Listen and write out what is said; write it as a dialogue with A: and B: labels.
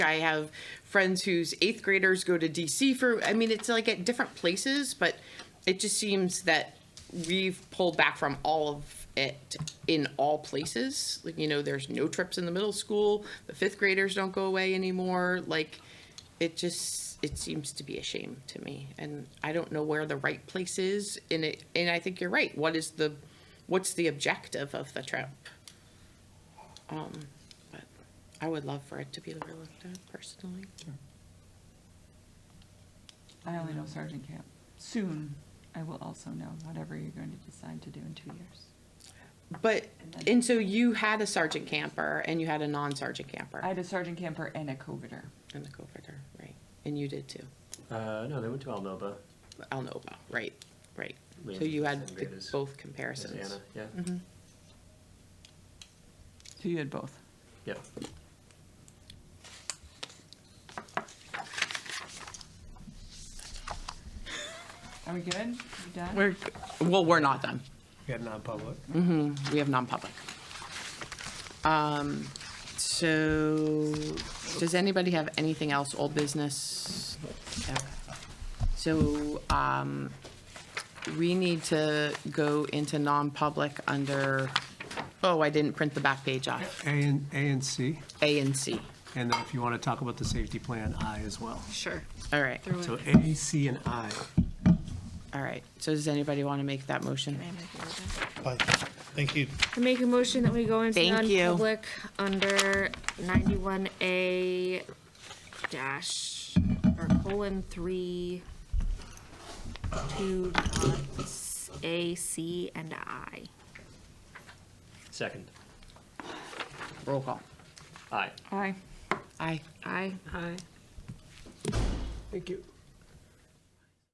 A: I have friends whose eighth graders go to DC for, I mean, it's like at different places, but it just seems that we've pulled back from all of it in all places. Like, you know, there's no trips in the middle school, the fifth graders don't go away anymore. Like, it just, it seems to be a shame to me. And I don't know where the right place is in it. And I think you're right. What is the, what's the objective of the trip? But I would love for it to be looked at personally.
B: I only know Sergeant Camp. Soon, I will also know whatever you're going to decide to do in two years.
A: But, and so you had a sergeant camper and you had a non-sergeant camper
B: I had a Sergeant Camper and a coveter.
A: and the coveter, right? And you did too,
C: Uh, no, they went to Alnoba.
A: Alnoba, right, right.
C: Liam's
A: So you
C: the
A: had
C: same
A: the-
C: grade as-
A: both
C: as
A: comparisons.
C: Anna, yeah,
D: Mm-hmm.
B: So you had both.
C: yeah.
B: Are we good? You done?
A: We're, well, we're not done.
D: We had non-public.
A: We have non-public. Um, so, does anybody have anything else, old business? Okay. So, um, we need to go into non-public under, oh, I didn't print the back page off,
D: A and, A and C,
A: A and C.
D: and then if you want to talk about the safety plan, I as well.
E: Sure.
A: All right,
D: So A, C, and I.
A: all right. So does anybody want to make that motion?
F: Bye. Thank you.
E: I make a motion that we go into
A: Thank you.
E: non-public under ninety-one A dash, or colon three, two dots, A, C, and I.
C: Second,
A: Roll call.
C: aye.
B: Aye.
A: Aye.
E: I.
D: Thank you.